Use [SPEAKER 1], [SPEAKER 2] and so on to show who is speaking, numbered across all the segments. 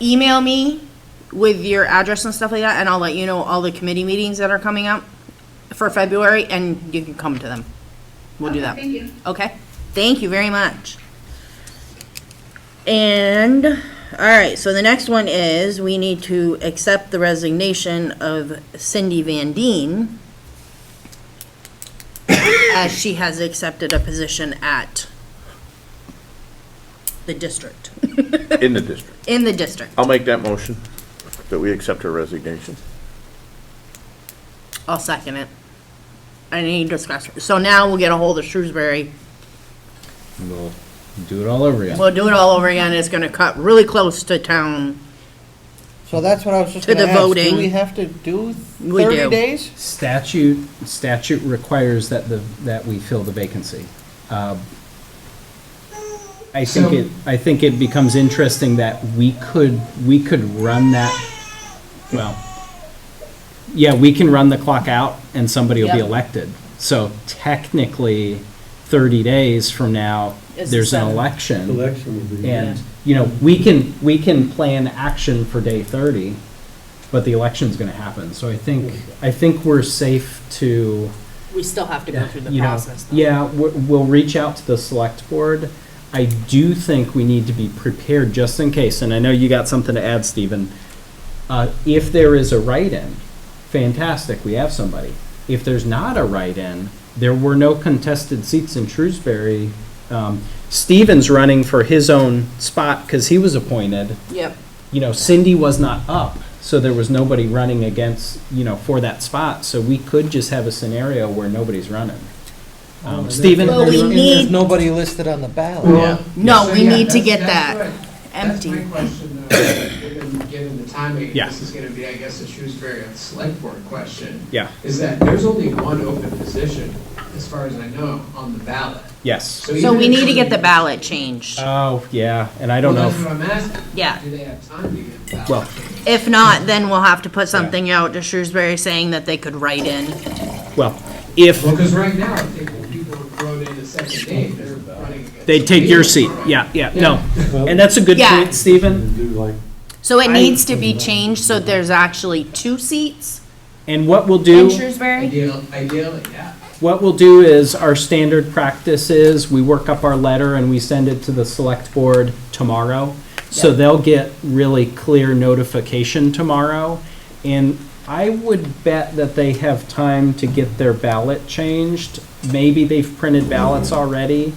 [SPEAKER 1] email me with your address and stuff like that, and I'll let you know all the committee meetings that are coming up for February, and you can come to them. We'll do
[SPEAKER 2] Okay,
[SPEAKER 1] that.
[SPEAKER 2] thank you.
[SPEAKER 1] Okay, thank you very much. And, all right, so the next one is, we need to accept the resignation of Cindy Van Deen as she has accepted a position at the district,
[SPEAKER 3] in the district.
[SPEAKER 1] in the district.
[SPEAKER 3] I'll make that motion, that we accept her resignation.
[SPEAKER 1] I'll second it. Any discussion? So now we'll get a hold of Shrewsbury.
[SPEAKER 4] We'll do it all over again.
[SPEAKER 1] We'll do it all over again. It's gonna cut really close to town.
[SPEAKER 5] So that's what I was just
[SPEAKER 1] To
[SPEAKER 5] gonna
[SPEAKER 1] the
[SPEAKER 5] ask,
[SPEAKER 1] voting.
[SPEAKER 5] do we have to do
[SPEAKER 1] We do.
[SPEAKER 5] thirty days?
[SPEAKER 4] Statute, statute requires that the, that we fill the vacancy. Uh, I think it, I think it becomes interesting that we could, we could run that, well, yeah, we can run the clock out and somebody will be
[SPEAKER 1] Yeah.
[SPEAKER 4] elected. So technically, 30 days from now,
[SPEAKER 1] It's
[SPEAKER 4] there's an
[SPEAKER 1] seven.
[SPEAKER 4] election.
[SPEAKER 6] Election would be.
[SPEAKER 4] And, you know, we can, we can plan action for day 30, but the election's going to happen. So I think, I think we're safe to,
[SPEAKER 7] We still have to go through the
[SPEAKER 4] you know,
[SPEAKER 7] process. though.
[SPEAKER 4] yeah, we're- we'll reach out to the select board. I do think we need to be prepared just in case, and I know you got something to add, Stephen. Uh, If there is a write-in, fantastic, we have somebody. If there's not a write-in, there were no contested seats in Shrewsbury. Um, Stephen's running for his own spot because he was appointed
[SPEAKER 7] Yep.
[SPEAKER 4] you know, Cindy was not up, so there was nobody running against, you know, for that spot. So we could just have a scenario where nobody's running. Um, Stephen,
[SPEAKER 1] Well, we
[SPEAKER 5] And
[SPEAKER 1] need-
[SPEAKER 5] There's nobody listed on the ballot.
[SPEAKER 4] Yeah.
[SPEAKER 1] No, Oh, we
[SPEAKER 8] Yeah,
[SPEAKER 1] need to
[SPEAKER 8] that's-
[SPEAKER 1] get
[SPEAKER 8] that's
[SPEAKER 1] that
[SPEAKER 8] what- That's
[SPEAKER 1] empty.
[SPEAKER 8] my question, though, given, given the timing.
[SPEAKER 4] Yeah.
[SPEAKER 8] This is gonna be, I guess, a Shrewsbury on select board question.
[SPEAKER 4] Yeah.
[SPEAKER 8] Is that there's only one open position, as far as I know, on the ballot.
[SPEAKER 4] yes.
[SPEAKER 1] So
[SPEAKER 8] even
[SPEAKER 1] we
[SPEAKER 8] if
[SPEAKER 1] need to get the
[SPEAKER 8] somebody-
[SPEAKER 1] ballot changed.
[SPEAKER 4] Oh, yeah, and I don't know.
[SPEAKER 8] Well, that's
[SPEAKER 4] if-
[SPEAKER 8] what I'm asking.
[SPEAKER 1] Yeah.
[SPEAKER 8] Do they have time to get the ballot?
[SPEAKER 4] Well,
[SPEAKER 1] If not, then we'll have to put something out to Shrewsbury saying that they could write in.
[SPEAKER 4] well, if
[SPEAKER 8] Well, because right now, I think when people wrote in the second name, they're running against.
[SPEAKER 4] they take your seat, yeah, yeah, no. And that's a good
[SPEAKER 1] Yeah.
[SPEAKER 4] point, Stephen.
[SPEAKER 6] Do like,
[SPEAKER 1] So it needs to be changed so there's actually two seats
[SPEAKER 4] And what we'll do.
[SPEAKER 1] in Shrewsbury?
[SPEAKER 8] Ideal, ideally, yeah.
[SPEAKER 4] What we'll do is, our standard practice is, we work up our letter and we send it to the select board tomorrow. So they'll get really clear notification tomorrow. And I would bet that they have time to get their ballot changed. Maybe they've printed ballots already,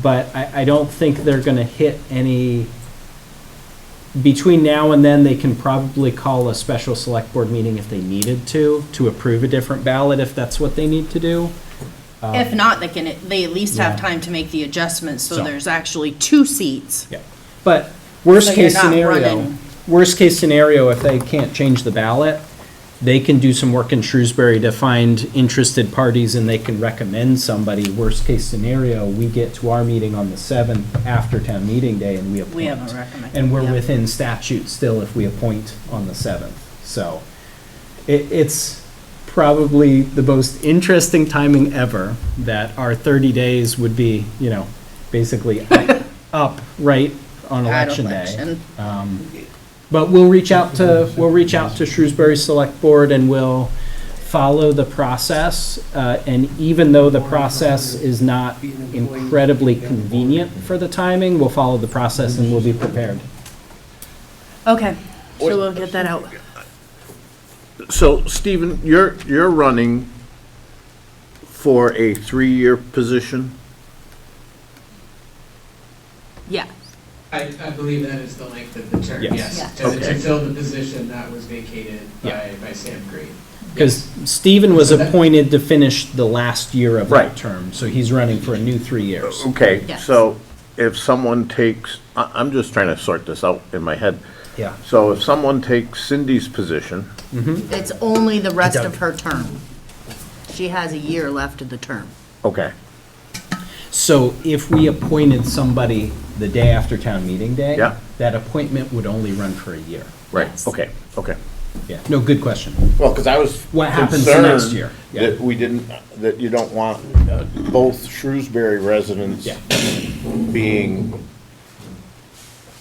[SPEAKER 4] but I, I don't think they're gonna hit any. Between now and then, they can probably call a special select board meeting if they needed to, to approve a different ballot if that's what they need to do.
[SPEAKER 1] If not, they can, they at least have
[SPEAKER 4] Yeah.
[SPEAKER 1] time to make the adjustments so
[SPEAKER 4] So-
[SPEAKER 1] there's actually two seats.
[SPEAKER 4] Yeah, but worst
[SPEAKER 1] So
[SPEAKER 4] case
[SPEAKER 1] you're not
[SPEAKER 4] scenario,
[SPEAKER 1] running-
[SPEAKER 4] worst case scenario, if they can't change the ballot, they can do some work in Shrewsbury to find interested parties and they can recommend somebody. Worst case scenario, we get to our meeting on the seventh after town meeting day and we appoint.
[SPEAKER 1] We have a recommend-
[SPEAKER 4] And we're
[SPEAKER 1] yeah.
[SPEAKER 4] within statute still if we appoint on the seventh. So it, it's probably the most interesting timing ever that our thirty days would be, you know, basically up- up right on
[SPEAKER 1] At
[SPEAKER 4] election day.
[SPEAKER 1] election.
[SPEAKER 4] But we'll reach out to, we'll reach out to Shrewsbury Select Board and we'll follow the process. Uh, and even though the process is not incredibly convenient for the timing, we'll follow the process and we'll be prepared.
[SPEAKER 1] Okay, so we'll get that out.
[SPEAKER 3] So, Stephen, you're, you're running for a three-year position?
[SPEAKER 1] Yeah,
[SPEAKER 8] I, I believe that is the length of the term,
[SPEAKER 4] Yes.
[SPEAKER 8] yes.
[SPEAKER 1] Yeah.
[SPEAKER 8] To to fill the position that was vacated
[SPEAKER 4] Yeah.
[SPEAKER 8] by, by Sam Green.
[SPEAKER 4] Because Stephen was
[SPEAKER 8] So that-
[SPEAKER 4] appointed to finish the last year of
[SPEAKER 3] Right. Oh,
[SPEAKER 4] that term, so he's running for a new three years.
[SPEAKER 3] Okay,
[SPEAKER 1] Yes.
[SPEAKER 3] so if someone takes, I, I'm just trying to sort this out in my head.
[SPEAKER 4] Yeah.
[SPEAKER 3] So if someone takes Cindy's position,
[SPEAKER 1] it's only the rest of her term. She has a year left of the term.
[SPEAKER 3] okay,
[SPEAKER 4] So if we appointed somebody the day after town meeting day,
[SPEAKER 3] Yeah.
[SPEAKER 4] that appointment would only run for a year.
[SPEAKER 3] right,
[SPEAKER 1] Yes.
[SPEAKER 3] okay, okay.
[SPEAKER 4] Yeah, no, good question.
[SPEAKER 3] Well, because I was.
[SPEAKER 4] What happens the next
[SPEAKER 3] concerned
[SPEAKER 4] year? Yeah.
[SPEAKER 3] That we didn't, that you don't want uh, both Shrewsbury residents
[SPEAKER 4] Yeah.
[SPEAKER 3] being